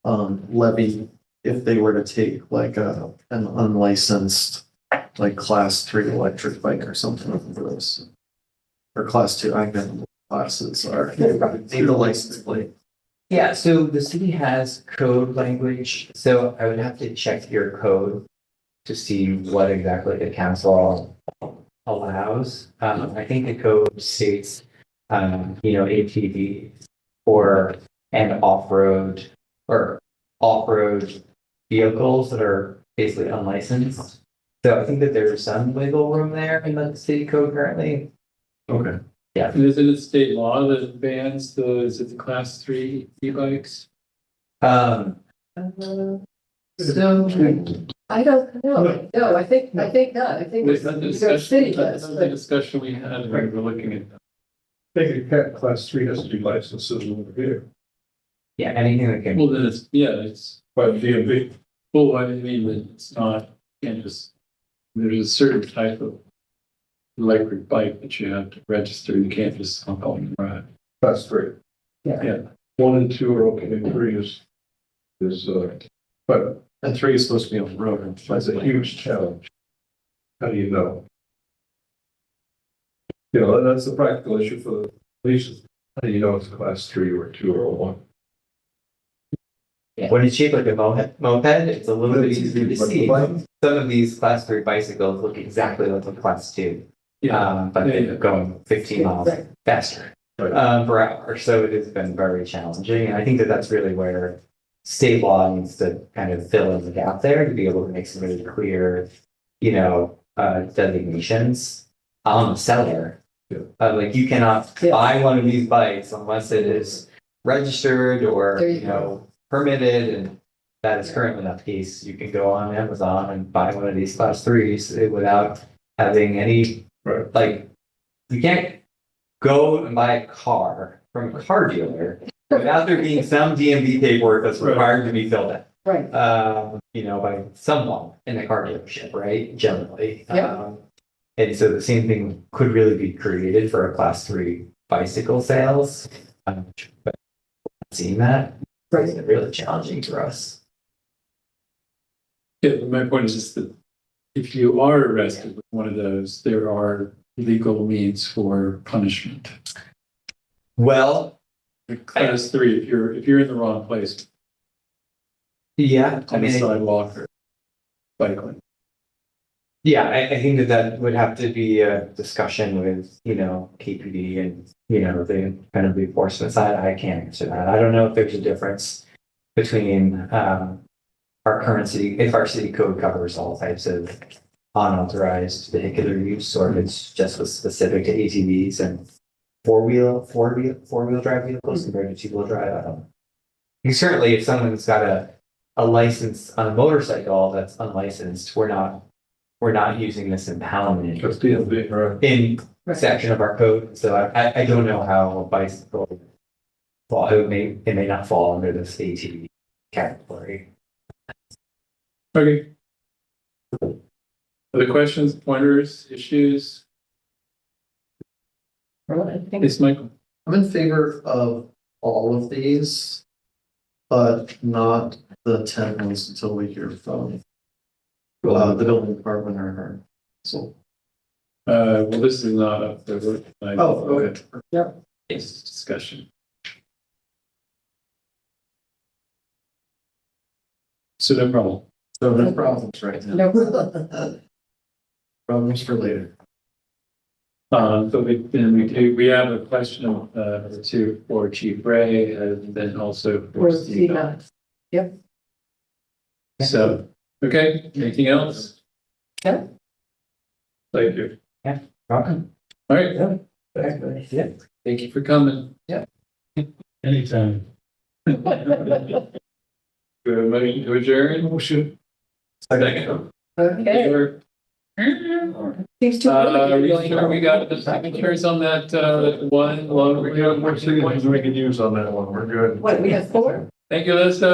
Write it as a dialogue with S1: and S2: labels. S1: um, levy if they were to take like a, an unlicensed, like class three electric bike or something like this. Or class two, I know what classes are, need a license plate.
S2: Yeah, so the city has code language, so I would have to check your code to see what exactly the council allows. Um, I think the code states, um, you know, ATV or and off-road or off-road vehicles that are basically unlicensed. So I think that there's some wiggle room there in the city code currently.
S1: Okay.
S3: And is it a state law that bans the, is it the class three e-bikes?
S2: Um,
S4: Uh,
S2: so
S4: I don't know, no, I think, I think not, I think
S3: Was that the
S4: New York
S3: discussion,
S4: City
S3: that
S4: does,
S3: was the
S4: but
S3: discussion we had when we were looking at that.
S5: Take a cat class three has to be licensed as a vehicle
S2: yeah, anything that can.
S3: Well, then it's, yeah, it's,
S5: by the DMV.
S3: well, I mean, that it's not, can't just, there's a certain type of electric bike that you have to register, you can't just hop on and ride.
S5: Class three.
S2: Yeah.
S3: Yeah.
S5: One and two are okay, and three is, is, uh, but
S1: And three is supposed to be on the road. and
S5: that's a
S1: like-
S5: huge challenge. How do you know? You know, that's a practical issue for the police. How do you know it's a class three or two or a one?
S2: When it's shaped like a mo- moped, it's a little bit easier to see.
S5: But-
S2: Some of these class three bicycles look exactly like a class two, um, but they're going fifteen miles
S4: Right.
S2: faster
S5: Right.
S2: um, per hour. So it has been very challenging. And I think that that's really where state law needs to kind of fill in the gap there to be able to make some really clear, you know, uh, designations on the seller.
S5: Yeah.
S2: Uh, like you cannot
S4: Yeah.
S2: buy one of these bikes unless it is registered or,
S4: There you
S2: you know, permitted and that is currently not the case. You can go on Amazon and buy one of these class threes without having any.
S5: Right.
S2: Like, you can't go and buy a car from a car dealer without there being some DMV paperwork that's
S5: Right.
S2: required to be filled out.
S4: right,
S2: Um, you know, by someone in a car dealership, right, generally.
S4: Yeah.
S2: Um, And so the same thing could really be created for a class three bicycle sales. Um, But Seeing that,
S4: right.
S2: it's really challenging for us.
S3: Yeah, my point is just that if you are arrested with one of those, there are legal means for punishment.
S2: Well,
S3: The Class three, if you're, if you're in the wrong place
S2: yeah, I
S3: on the
S2: mean, I-
S3: sidewalk or bike lane.
S2: yeah, I, I think that that would have to be a discussion with, you know, KPD and, you know, the kind of enforcement side. I can't answer that. I don't know if there's a difference between, um, our current city, if our city code covers all types of unauthorized vehicular use, or if it's just was specific to ATVs and four-wheel, four-wheel, four-wheel drive vehicles compared to two-wheel drive, I don't. Because Certainly, if someone's got a a license on a motorcycle that's unlicensed, we're not, we're not using this impoundment
S5: That's DMV, right?
S2: in
S4: Right.
S2: section of our code, so I, I, I don't know how a bicycle fall, it may, it may not fall under this ATV category.
S3: Okay. Other questions, pointers, issues?
S4: Well, I think
S3: Yes, Michael?
S1: I'm in favor of all of these, but not the ten ones until we hear from uh, the building department or her. So,
S3: Uh, well, this is not up there.
S1: oh, okay.
S3: It's discussion. So no problem.
S1: So no problems right now.
S4: No problem.
S1: Problems for later.
S3: Um, so we, then we do, we have a question of, uh, two for Chief Ray and then also for
S4: We're
S3: Steve.
S4: seeing that.
S3: So, okay, anything else?
S4: Yeah.
S3: Thank you.
S2: Welcome.
S3: All right,
S2: Yeah.
S3: thank you for coming.
S1: Yeah.
S3: Anytime. Do a motion to adjourn? Motion. Second.
S4: Okay,
S3: Sure.
S4: seems too
S3: Uh,
S4: early.
S3: we sure we got the signatures on that, uh, one, long.
S5: We got more signatures we can use on that one. We're good.
S4: What, we have four?
S3: Thank you, Alyssa.